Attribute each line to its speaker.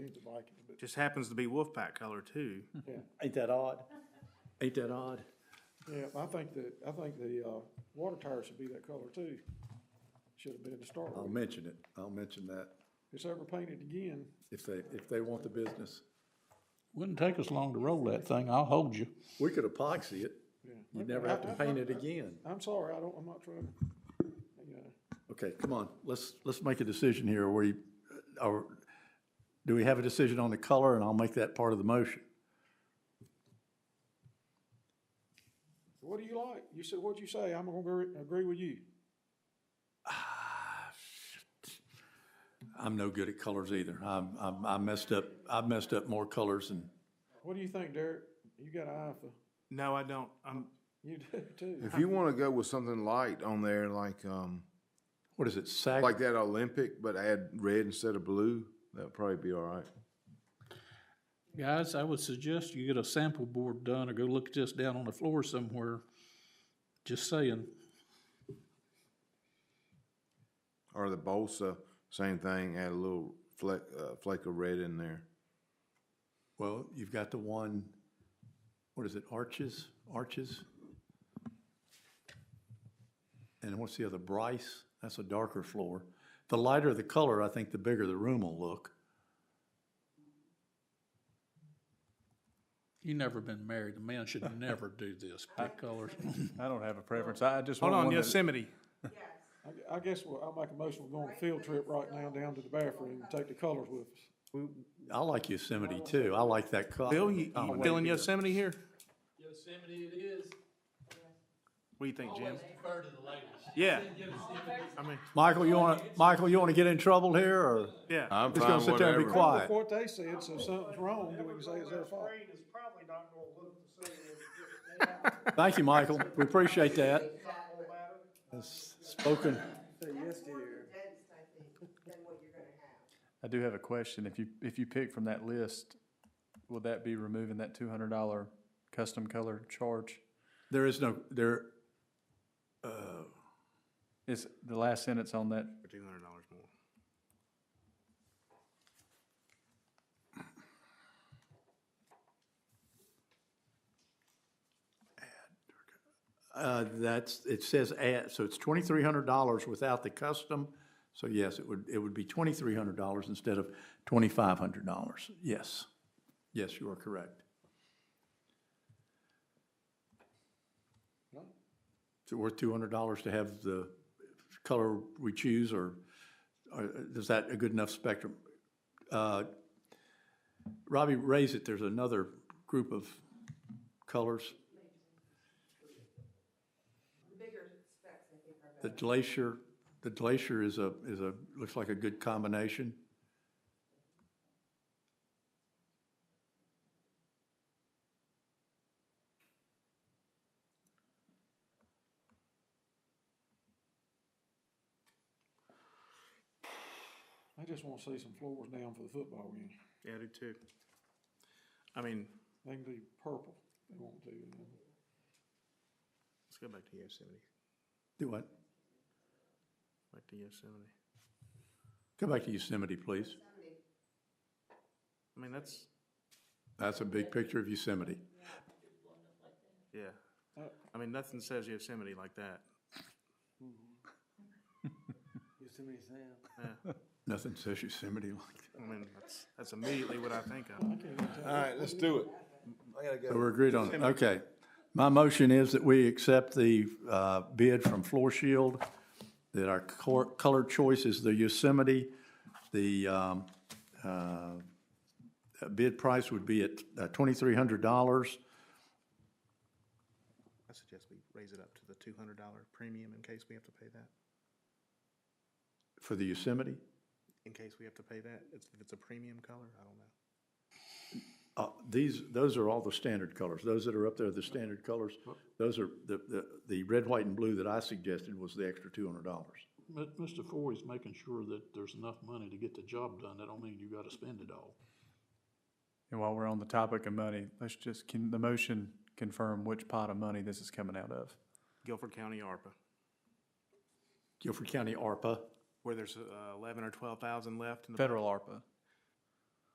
Speaker 1: like it, but
Speaker 2: Just happens to be Wolfpack color too.
Speaker 3: Ain't that odd? Ain't that odd?
Speaker 1: yeah, I think that, I think the, uh, water tower should be that color too. Should have been to start
Speaker 4: I'll
Speaker 1: with.
Speaker 4: mention it. I'll mention that.
Speaker 1: If It's ever painted again,
Speaker 4: If they, if they want the business,
Speaker 5: Wouldn't take us long to roll that thing, I'll hold you.
Speaker 4: we could epoxy it.
Speaker 1: yeah.
Speaker 4: You'd never have to paint it again.
Speaker 1: I'm sorry, I don't, I'm not trying, to, you know,
Speaker 4: Okay, come on, let's, let's make a decision here. We, or, do we have a decision on the color? And I'll make that part of the motion.
Speaker 1: what do you like? You said, what'd you say? I'm gonna agree, agree with you.
Speaker 4: I'm no good at colors either. I'm, I'm, I messed up, I messed up more colors than,
Speaker 1: What do you think, Derek? You got an eye for,
Speaker 2: No, I don't. I'm,
Speaker 1: you do too.
Speaker 6: If you want to go with something light on there, like um,
Speaker 4: what is it, sag?
Speaker 6: like that Olympic, but add red instead of blue, that'd probably be all right.
Speaker 5: Guys, I would suggest you get a sample board done or go look at this down on the floor somewhere. Just saying.
Speaker 6: Or the Bolsa, same thing, add a little fleck uh, flake of red in there.
Speaker 4: Well, you've got the one, what is it, Arches, Arches? And what's the other, Bryce? That's a darker floor. The lighter the color, I think the bigger the room will look.
Speaker 5: You never been married, a man should never do this, pick colors.
Speaker 7: I don't have a preference. I I just
Speaker 2: hold
Speaker 7: want
Speaker 2: on,
Speaker 7: one that-
Speaker 2: Yosemite.
Speaker 1: I, I guess we'll, I'll make a motion, we'll go on a field trip right now down to the bathroom and take the colors with us.
Speaker 4: I like Yosemite too. I like that color.
Speaker 2: Bill, you,
Speaker 4: I'm
Speaker 2: you
Speaker 4: way
Speaker 2: feeling
Speaker 4: bigger.
Speaker 2: Yosemite here?
Speaker 8: Yosemite it is.
Speaker 2: What do you think, Jim?
Speaker 8: Always defer to the ladies.
Speaker 2: Yeah,
Speaker 8: Yosemite.
Speaker 2: I mean,
Speaker 4: Michael, you wanna, Michael, you wanna get in trouble here or
Speaker 2: yeah.
Speaker 6: I'm
Speaker 4: just gonna sit there and be
Speaker 1: Well,
Speaker 4: quiet?
Speaker 1: What they said, so if something's wrong, then we can say it's their fault.
Speaker 9: is probably not gonna look the same as
Speaker 4: Thank you, Michael. We appreciate that.
Speaker 9: football matter.
Speaker 4: That's Spoken.
Speaker 10: condensed, I think, than what you're gonna have.
Speaker 7: I do have a question. If you, if you pick from that list, will that be removing that two hundred dollar custom color charge?
Speaker 4: There is no, there,
Speaker 7: It's the last sentence on that.
Speaker 2: For two hundred dollars more.
Speaker 4: Uh, that's, it says add, so it's twenty-three hundred dollars without the custom. So yes, it would, it would be twenty-three hundred dollars instead of twenty-five hundred dollars. Yes. Yes, you are correct. Is it worth two hundred dollars to have the color we choose or, or is that a good enough spectrum? Uh, Robbie, raise it. There's another group of colors.
Speaker 10: The bigger specs, I think, are
Speaker 4: The
Speaker 10: better.
Speaker 4: glacier, the glacier is a, is a, looks like a good combination.
Speaker 1: I just wanna see some floors down for the football game.
Speaker 2: Yeah, I do too. I mean,
Speaker 1: They can do purple, if they want to. and then-
Speaker 2: let's go back to Yosemite,
Speaker 4: Do what?
Speaker 2: back to Yosemite.
Speaker 4: Go back to Yosemite, please.
Speaker 2: I mean, that's,
Speaker 4: That's a big picture of Yosemite.
Speaker 2: yeah. I mean, nothing says Yosemite like that.
Speaker 4: Nothing says Yosemite like
Speaker 2: I mean, that's, that's immediately what I think of.
Speaker 6: All right, let's do it. I gotta
Speaker 4: that. So we're agreed on it. Okay. My motion is that we accept the uh, bid from Floor Shield, that our cor- color choice is the Yosemite. The um, uh, bid price would be at uh, $2,300.
Speaker 2: I suggest we raise it up to the two hundred dollar premium in case we have to pay that.
Speaker 4: For the Yosemite?
Speaker 2: In case we have to pay that, if if it's a premium color, I don't know.
Speaker 4: Uh, These, those are all the standard colors. Those that are up there are the standard colors. Those are, the, the, the red, white, and blue that I suggested was the extra two hundred dollars.
Speaker 5: But Mr. Forey's making sure that there's enough money to get the job done, that don't mean you gotta spend it all.
Speaker 7: And while we're on the topic of money, let's just, can the motion confirm which pot of money this is coming out of?
Speaker 2: Guilford County ARPA,
Speaker 4: Guilford County ARPA,
Speaker 2: where there's uh, eleven or twelve thousand left in the.
Speaker 7: Federal ARPA.